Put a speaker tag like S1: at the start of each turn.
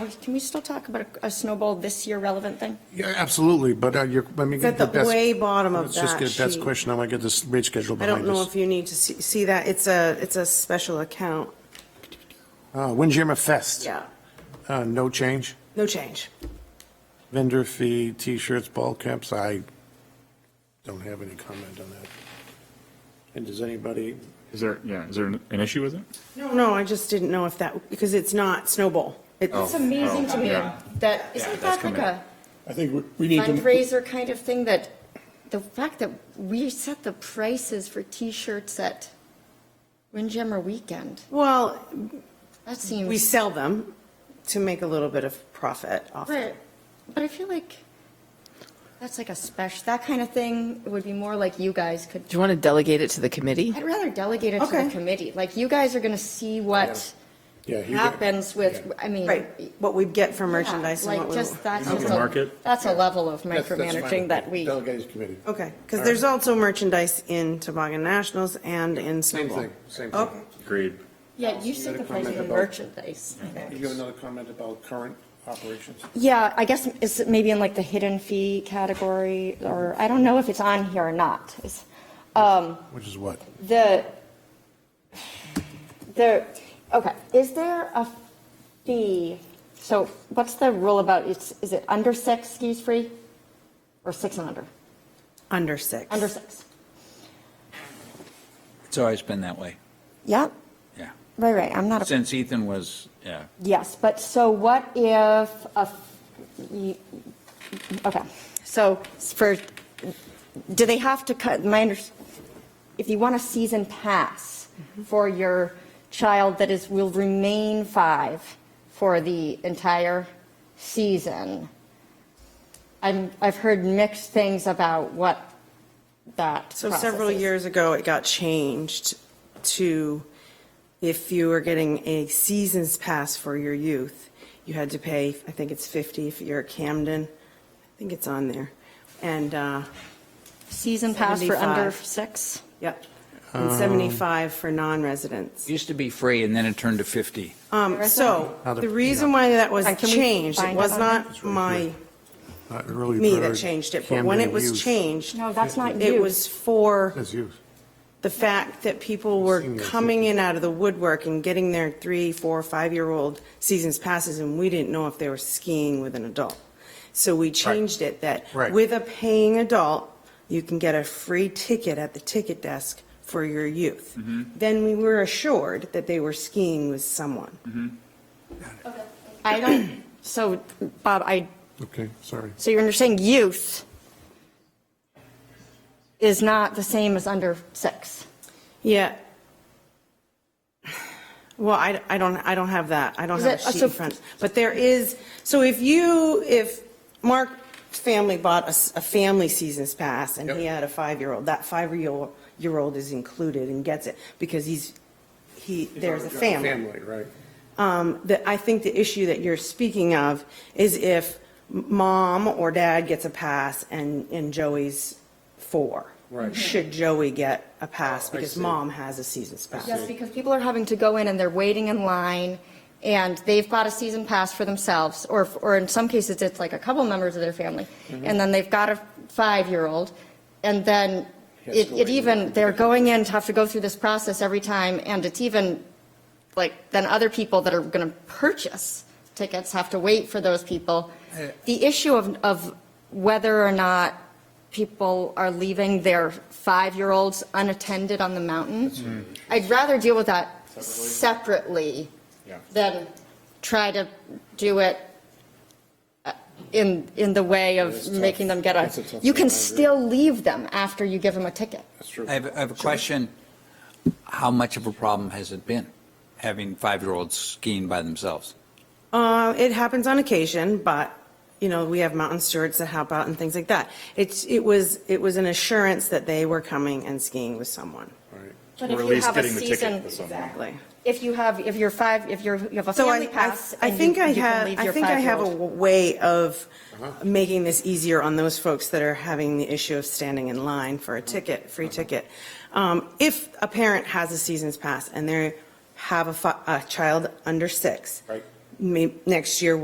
S1: can we still talk about a- a snowball this year relevant thing?
S2: Yeah, absolutely, but uh, you're, let me
S3: It's at
S2: get
S3: the
S2: the best.
S3: way bottom of
S2: Let's just
S3: that
S2: get Beth's
S3: sheet.
S2: question, I want to get this rate schedule
S3: I
S2: behind
S3: don't know
S2: us.
S3: if you need to see, see that. It's a, it's a special account.
S2: Uh, Windjammer Fest.
S3: Yeah.
S2: Uh, no change.
S3: No change.
S2: Vendor fee, t-shirts, ball caps, I don't have any comment on that. And does anybody,
S4: Is there, yeah, is there an an issue with it?
S3: No, no, I just didn't know if that, because it's not snowball. It-
S4: Oh.
S1: It's amazing to me
S4: yeah.
S1: that,
S4: Yeah,
S1: isn't
S4: that's
S1: that like
S4: coming.
S1: a
S5: I think we- we need to,
S1: fundraiser kind of thing that, the fact that we set the prices for t-shirts at Windjammer Weekend,
S3: Well,
S1: that
S3: we
S1: seems.
S3: sell them to make a little bit of profit off
S1: Right.
S3: it.
S1: But I feel like that's like a special, that kind of thing would be more like you guys could
S6: Do you want to delegate it to the committee?
S1: I'd rather delegate it to
S3: Okay.
S1: the committee. Like, you guys are going to see what
S2: yeah. he-
S1: happens with, I mean.
S3: Right, what we get from
S1: yeah,
S3: merchandise and what
S1: Like,
S3: we.
S1: just, that's just
S4: Open
S1: a,
S4: market?
S1: that's a level of
S2: That's- that's fine.
S1: micromanaging that we,
S2: Delegates committee.
S3: Okay, because there's also merchandise in Toboggan Nationals and in
S2: Same
S3: snowball.
S2: thing, same
S3: Okay.
S2: thing.
S4: Agreed.
S1: yeah, you
S2: You
S1: set
S2: had a
S1: the price of
S2: comment
S1: the
S2: about-
S1: merchandise. I think.
S2: You have another comment about current operations?
S1: Yeah, I guess it's maybe in like the hidden fee category, or I don't know if it's on here or not. It's-
S2: Which is what?
S1: The, the, okay, is there a fee? So what's the rule about, it's, is it under six skis free? Or six and under?
S3: Under six.
S1: Under six.
S7: It's always been that way,
S1: Yeah,
S7: yeah.
S1: right, right, I'm not, a
S7: Since Ethan was, yeah.
S1: yes, but so what if a, you- okay, so for, do they have to cut, my under, if you want a season pass
S3: Mm-hmm.
S1: for your child that is, will remain five for the entire season, I'm, I've heard mixed things about what that
S3: So several
S1: process is.
S3: years ago, it got changed to if you were getting a season's pass for your youth, you had to pay, I think it's 50 if you're at Camden. I think it's on there. And, uh,
S1: Season pass for under
S3: 75.
S1: six?
S3: yep,
S1: Um,
S3: and 75 for non-residents.
S7: It used to be free and then it turned to 50.
S3: Um, So
S2: Other-
S3: the reason why that was
S1: Alright, can we
S3: changed, it
S1: find
S3: was
S1: it on
S3: not my,
S2: Not really
S3: me that
S2: bird,
S3: changed it, but when it
S2: Camden
S3: was
S2: youth.
S3: changed,
S1: No, that's not
S3: it
S1: youth.
S3: was for.
S2: That's youth.
S3: the fact that people were
S2: Seniors.
S3: coming in out of the woodwork and getting their three, four, five-year-old seasons passes, and we didn't know if they were skiing with an adult. So we changed it that
S2: Right.
S3: with a paying adult, you can get a free ticket at the ticket desk for your youth. Then we were assured that they were skiing with someone.
S1: I don't, so Bob, I,
S2: Okay, sorry.
S1: so you're saying youth is not the same as under six?
S3: Yeah. Well, I, I don't, I don't have that. I don't
S1: Is
S3: have a
S1: it- uh,
S3: sheet
S1: so-
S3: in front. But there is, so if you, if Mark's family bought a, s- a family season's pass and he
S2: Yep.
S3: had a five-year-old, that five-year-old, year old is included and gets it because he's, he, there's a family.
S2: Family, right.
S3: Um, that, I think the issue that you're speaking of is if m- mom or dad gets a pass and, and Joey's four.
S2: Right.
S3: Should Joey get a pass
S2: I
S3: because
S2: see.
S3: mom has a season's pass?
S1: Yes, because people are having to go in and they're waiting in line and they've bought a season pass for themselves, or, or in some cases, it's like a couple members of their family.
S2: Mm-hmm.
S1: And then they've got a five-year-old and then
S2: Has to
S1: it,
S2: go
S1: it
S2: in.
S1: even, they're going in to have to go through this process every time. And it's even like, then other people that are going to purchase tickets have to wait for those people. The issue of, of whether or not people are leaving their five-year-olds unattended on the mountain, I'd rather deal with that separately than try to do it uh, in, in the way
S2: It's
S1: of
S2: tough.
S1: making them get
S2: It's a
S1: a,
S2: tough
S1: you
S2: one, I agree.
S1: can still leave them after you give them a ticket.
S2: That's true.
S7: I have, I have a question. How much of a problem has it been, having five-year-olds skiing by themselves?
S3: Uh, it happens on occasion, but, you know, we have mountain stewards that help out and things like that. It's, it was, it was an assurance that they were coming and skiing with someone.
S1: But
S4: Or
S1: if
S4: at
S1: you
S4: least
S1: have a
S4: getting the ticket
S1: season,
S4: with someone.
S3: Exactly.
S1: if you have, if you're five, if you're, you have a
S3: So I,
S1: family pass.
S3: I- I
S1: and
S3: think
S1: you-
S3: I
S1: you can
S3: have,
S1: leave
S3: I
S1: your
S3: think I have a
S1: five-year-old.
S3: w- way of making this easier on those folks that are having the issue of standing in line for a ticket, free ticket. Um, If a parent has a season's pass and they have a, fi- a child under six.
S2: Right.
S3: may- Next year,